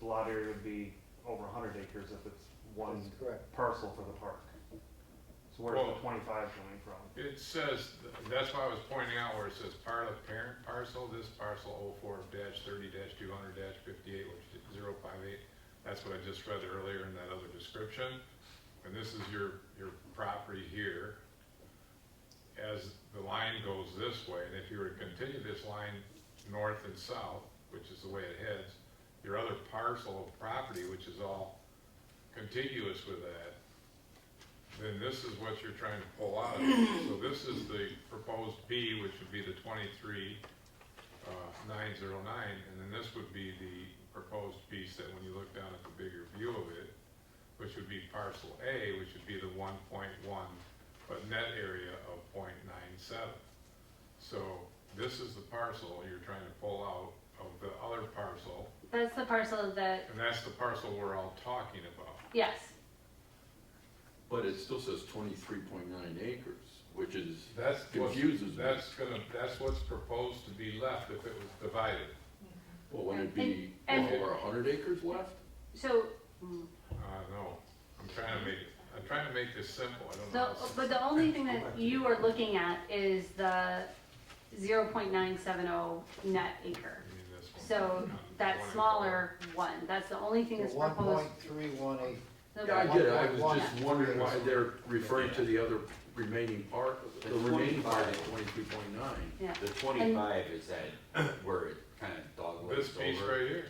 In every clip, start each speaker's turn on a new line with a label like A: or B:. A: the lot area would be over hundred acres if it's one
B: That's correct.
A: parcel for the park. So where's
C: Well-
A: the twenty-five coming from?
C: It says, that's why I was pointing out where it says part of parent parcel, this parcel oh four dash thirty dash two hundred dash fifty-eight, which is zero five eight. That's what I just read earlier in that other description. And this is your, your property here. As the line goes this way, and if you were to continue this line north and south, which is the way it heads, your other parcel of property, which is all contiguous with that, then this is what you're trying to pull out. of it. So this is the proposed B, which would be the twenty-three, uh, nine zero nine, and then this would be the proposed piece that when you look down at the bigger view of it, which would be parcel A, which would be the one point one, but net area of 0.97. So this is the parcel you're trying to pull out of the other parcel,
D: That's the parcel that,
C: and that's the parcel we're all talking about.
D: yes,
E: But it still says twenty-three point nine acres, which is,
C: That's what,
E: Confuses me.
C: that's gonna, that's what's proposed to be left if it was divided.
E: well, wouldn't it be
D: And-
E: well over a hundred acres left?
D: so,
C: Uh, no, I'm trying to make, it- I'm trying to make this simple, I don't know.
D: the,
C: how sim-
D: but the only thing that you are looking at is the zero point nine seven oh net acre.
C: I mean, this one.
D: So that smaller one, that's the only thing that's
B: One
D: proposed.
B: point three one eight,
D: The-
E: Yeah, I get it, I
B: Why?
E: was just wondering why they're referring to the other remaining part, the remaining part of twenty-three point nine.
D: Yeah,
F: The twenty-five is that where it kind of
C: This
F: doglegs
C: piece
F: over.
C: right here,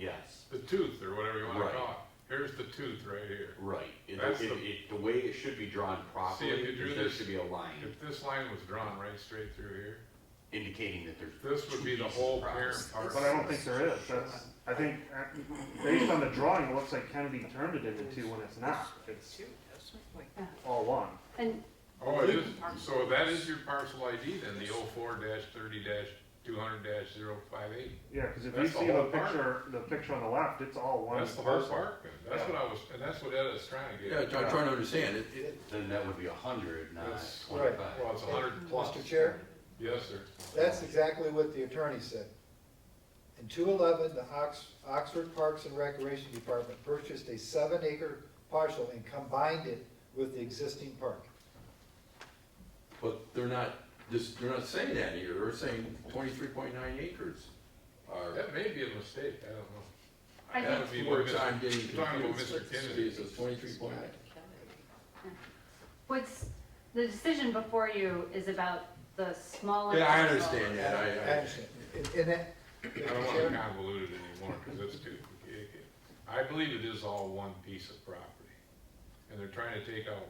F: Yes,
C: the tooth, or whatever you wanna
F: Right.
C: call it, here's the tooth right here.
F: right. It,
C: That's
F: it,
C: the-
F: it- the way it should be drawn properly,
C: you drew
F: is there
C: this-
F: should be a line
C: If this line was drawn right straight through here,
F: indicating that there's.
C: this would
F: two
C: be the
F: pieces
C: whole
F: of property.
C: parent
A: But I
C: parcel.
A: don't think there is, that's, I think, uh, based on the drawing, it looks like Kennedy turned it into two when it's not, it's all one.
D: and,
C: Oh, it is, so that is your parcel ID then, the oh four dash thirty dash two hundred dash zero five eight.
A: Yeah, cause if you
C: That's the
A: see the
C: whole park.
A: picture, the picture on the left, it's all one
C: That's the whole
A: parcel.
C: park, then. that's what I was, and that's what Ed is trying to get.
E: Yeah,
C: at.
E: I'm trying to understand, it, it,
F: Then that would be a hundred, not
C: That's
B: right.
F: twenty-five.
C: Well, it's a hundred plus.
B: Mr. Chair,
C: Yes, sir.
B: that's exactly what the attorney said. In two eleven, the Ox, Oxford Parks and Recreation Department purchased a seven acre parcel and combined it with the existing park.
E: but they're not, this, they're not saying that here, they're saying twenty-three point nine acres. Are,
C: That may be a mistake, I don't know.
D: I
C: That would
E: that's
C: be
E: the
C: where
E: words
C: Mr.
E: I'm getting
C: you're talking about
E: confused.
C: Mr. Kennedy.
E: It says twenty-three point nine.
D: what's, the decision before you is about the smaller.
E: Yeah, I
D: parcel.
E: understand that, I,
B: I
E: I,
B: understand. And- And that,
C: I
B: Mr.
C: don't want to
B: Chairman,
C: convolute it anymore, because it's too, complicated. I believe it is all one piece of property. And they're trying to take out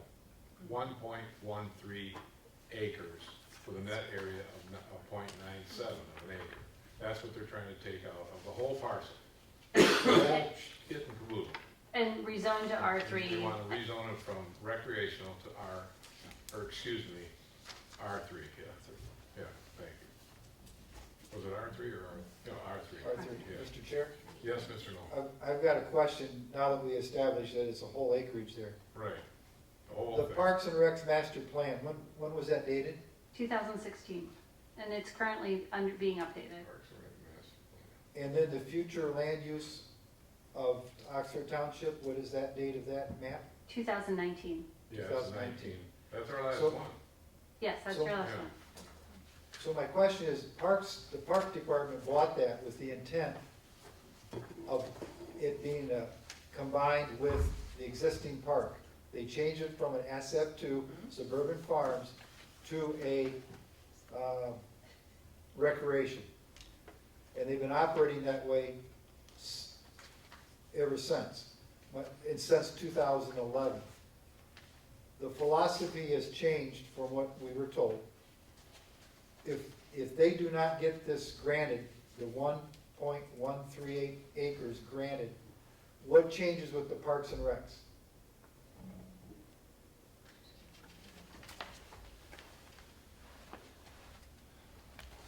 C: one point one three acres for the net area of, n- of point nine seven of an acre. That's what they're trying to take out of the whole parcel. Whole shit and glue.
D: And rezoned to R
C: You
D: three,
C: wanna rezone it from recreational to R, or excuse me, R three, yeah, yeah, thank you. Was it R three or R, no, R three?
B: Arthur, Mr. Chair,
C: Yes, Mr. Noel,
B: I've, I've got a question now that we established that it's a whole acreage there.
C: right. The whole
B: The
C: thing.
B: Parks and Recs master plan, when, when was that dated?
D: two thousand sixteen, and it's currently under, being updated.
C: Parks and Rec master plan.
B: And then the future land use of Oxford Township, what is that date of that map?
D: 2019.
C: Yeah, it's
B: 2019.
C: nineteen, that's our last
B: So-
C: one.
D: Yes, that's
B: So-
D: your last
C: Yeah.
D: one.
B: So my question is, Parks, the Park Department bought that with the intent of it being uh, combined with the existing park. They changed it from an asset to suburban farms to a uh, recreation. And they've been operating that way s- ever since, but- and since 2011. The philosophy has changed from what we were told if, if they do not get this granted, the one point one three eight acres granted, what changes with the parks and recs?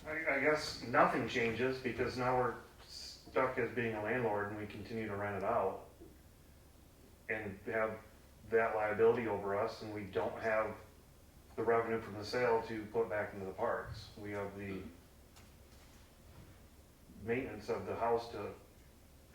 A: I, I guess nothing changes because now we're stuck as being a landlord and we continue to rent it out and have that liability over us and we don't have the revenue from the sale to put back into the parks. We have the maintenance of the house to